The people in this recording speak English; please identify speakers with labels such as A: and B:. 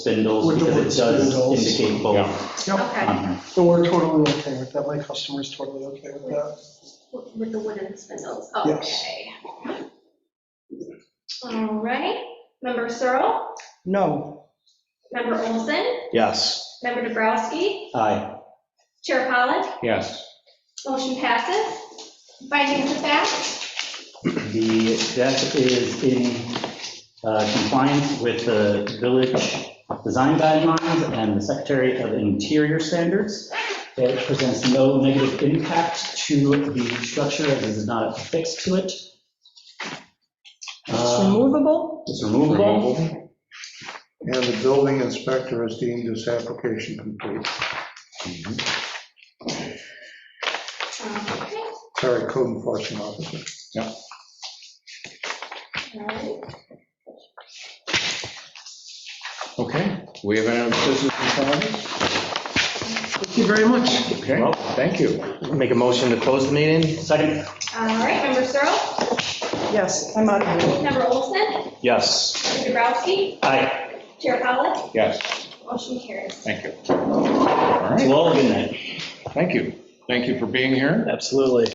A: spindles
B: With the
A: because
B: word
A: it does
B: spindles.
A: indicate both
B: Yep,
C: Um,
D: Okay,
A: on here.
B: so we're totally okay with that, my customer's totally okay with that.
D: with the wooden spindles,
B: Yes.
D: okay. All right, member Searle,
B: No,
D: member Olson,
C: Yes.
D: member Dubrowski,
A: Aye.
D: Chair Pollock,
C: Yes.
D: motion passes. Findings of fact,
A: The deck is in uh, compliance with the village design guidelines and the Secretary of Interior standards. It presents no negative impact to the structure, as it is not affixed to it.
E: It's
A: Uh,
E: removable?
A: It's removable.
F: And the building inspector has deemed this application complete.
D: okay,
F: Sorry, code enforcement officer.
D: all right.
C: Okay, we have any other business in front of us?
B: thank you very much.
C: Okay, thank you.
G: Make a motion to close the meeting?
A: Second,
D: All right, member Searle,
E: Yes, I'm out of here.
D: member Olson,
C: Yes.
D: member Dubrowski,
A: aye.
D: Chair Pollock,
C: Yes,
D: motion carries.
C: thank you. All right,
A: To all, good night.
C: thank you. Thank you for being here.
G: Absolutely.